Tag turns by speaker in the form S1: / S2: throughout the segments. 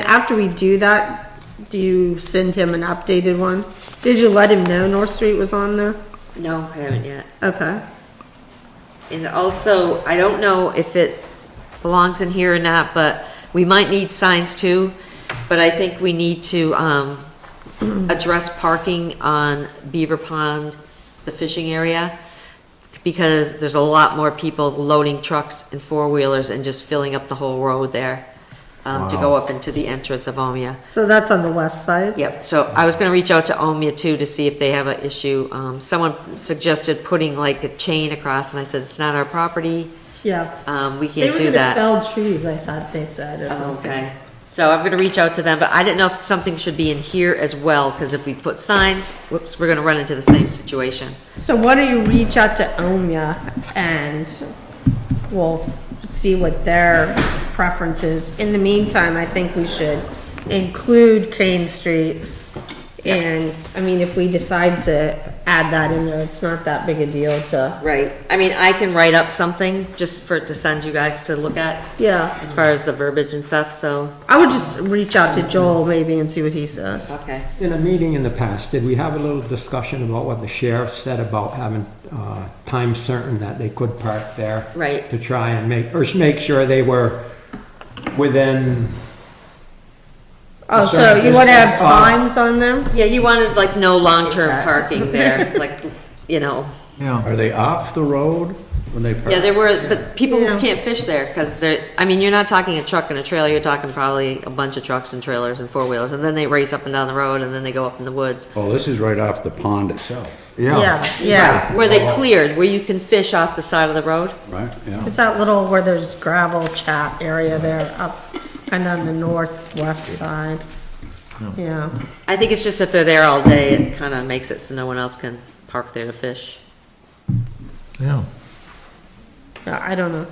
S1: after we do that, do you send him an updated one? Did you let him know North Street was on there?
S2: No, I haven't yet.
S1: Okay.
S2: And also, I don't know if it belongs in here or not, but we might need signs too. But I think we need to, um, address parking on Beaver Pond, the fishing area. Because there's a lot more people loading trucks and four-wheelers and just filling up the whole road there. Um, to go up into the entrance of Omea.
S1: So that's on the west side?
S2: Yep, so I was gonna reach out to Omea too to see if they have an issue. Um, someone suggested putting like a chain across and I said, it's not our property.
S1: Yeah.
S2: Um, we
S1: They
S2: can't
S1: were
S2: do
S1: gonna
S2: that.
S1: fell trees, I thought they said, or
S2: Oh,
S1: something.
S2: Okay, so I'm gonna reach out to them, but I didn't know if something should be in here as well, because if we put signs, whoops, we're gonna run into the same situation.
S1: So why don't you reach out to Omya and we'll see what their preference is. In the meantime, I think we should include Kane Street. And, I mean, if we decide to add that in there, it's not that big a deal to,
S2: Right, I mean, I can write up something just for, to send you guys to look at,
S1: yeah.
S2: as far as the verbiage and stuff, so,
S1: I would just reach out to Joel maybe and see what he says.
S2: okay.
S3: In a meeting in the past, did we have a little discussion about what the sheriff said about having uh, time certain that they could park there?
S2: Right.
S3: To try and make, or s- make sure they were within,
S1: Oh, so
S3: Sorry,
S1: you
S3: this
S1: wanna
S3: is
S1: have
S3: off.
S1: times on them?
S2: Yeah, you wanted like no long-term
S1: Okay.
S2: parking there, like, you know,
S4: Yeah,
S5: Are they off the road when they
S2: yeah,
S5: park?
S2: there were, but people who
S1: Yeah.
S2: can't fish there, because they're, I mean, you're not talking a truck and a trailer, you're talking probably a bunch of trucks and trailers and four-wheelers, and then they race up and down the road, and then they go up in the woods.
S5: Oh, this is right off the pond itself,
S4: yeah.
S1: Yeah, yeah.
S2: Where they cleared, where you can fish off the side of the road?
S5: right? Yeah.
S1: It's that little where there's gravel chat area there up kind of on the northwest side. Yeah,
S2: I think it's just if they're there all day, it kind of makes it so no one else can park there to fish.
S4: Yeah.
S1: Yeah, I don't know.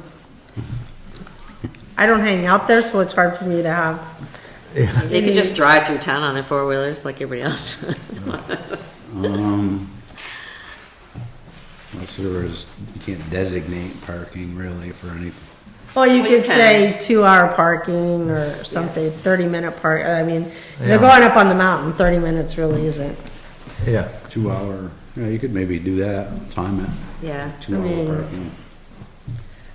S1: I don't hang out there, so it's hard for me to have,
S2: They could just drive through town on their four-wheelers like everybody else.
S5: Um, Unless there was, you can't designate parking really for any,
S1: well, you
S2: Well, you
S1: could
S2: can.
S1: say two-hour parking or something, thirty-minute park, I mean, they're
S4: Yeah. Mm.
S1: going up on the mountain, thirty minutes really isn't.
S4: Yeah.
S5: two hour, you know, you could maybe do that, time it,
S2: Yeah,
S5: two
S1: mean-
S5: hour parking.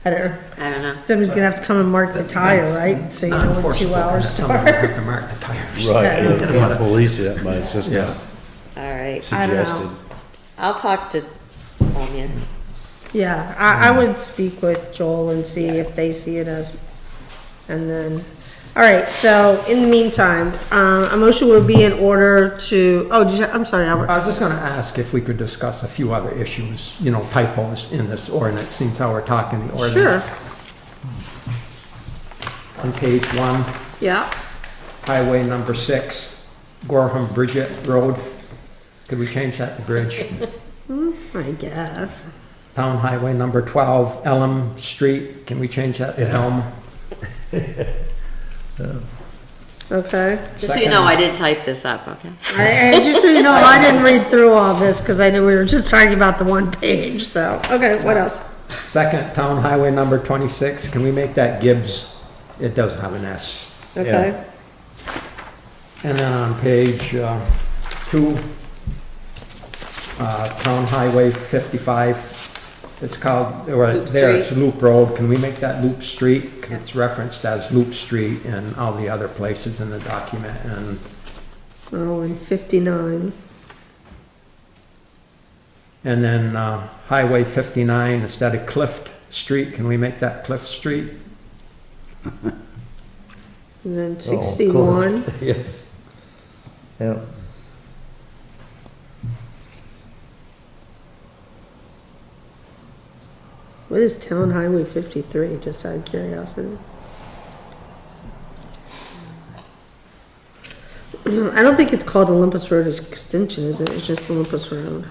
S1: I don't know,
S2: I don't know.
S1: somebody's gonna have to come and mark the tire, right? So you know what two hours
S3: someone would have to
S1: starts.
S3: mark the tires.
S5: Right, you can't police it, but it's just
S3: Yeah.
S2: All right,
S1: I don't know.
S5: suggested.
S2: I'll talk to Omia.
S1: Yeah, I, I would speak with Joel and see if they see it as, and then, all right, so in the meantime, uh, a motion would be in order to, oh, did you, I'm sorry, Albert.
S3: I was just gonna ask if we could discuss a few other issues, you know, typos in this ordinance, since how we're talking the
S1: Sure,
S3: ordinance. On page one,
S1: yeah,
S3: highway number six, Gorham Bridget Road. Could we change that to bridge?
S1: I guess.
S3: Town Highway number 12, Elm Street, can we change that to Elm?
S1: Okay.
S2: Just so you know, I didn't type this up, okay?
S1: I, I just, so you know, I didn't read through all this because I knew we were just talking about the one page, so, okay, what else?
S3: Second, Town Highway number 26, can we make that Gibbs? It does have an S.
S1: Okay,
S3: And then on page uh, two, uh, Town Highway 55, it's called, or
S2: Loop
S3: there it's Loop Road, can we make that Loop Street? Because it's referenced as Loop Street in all the other places in the document, and
S1: oh, and fifty-nine,
S3: And then uh, Highway 59, instead of Cliff Street, can we make that Cliff Street?
S1: and
S3: Oh,
S1: then sixty-one,
S4: Yeah. Yeah.
S1: what is Town Highway fifty-three, just out of curiosity? I don't think it's called Olympus Road Extension, is it? It's just Olympus Road.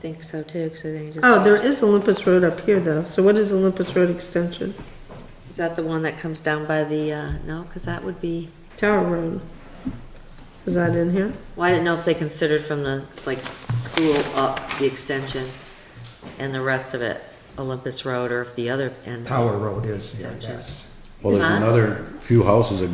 S2: Think so too, because I think it just,
S1: Oh, there is Olympus Road up here though, so what is Olympus Road Extension?
S2: is that the one that comes down by the, uh, no, because that would be,
S1: Tower Road. Is that in here?
S2: well, I didn't know if they considered from the, like, school up the extension and the rest of it, Olympus Road, or if the other ends.
S3: Tower Road is,
S2: Gotcha.
S3: yes.
S5: Well, there's
S2: Huh?
S5: another few houses that go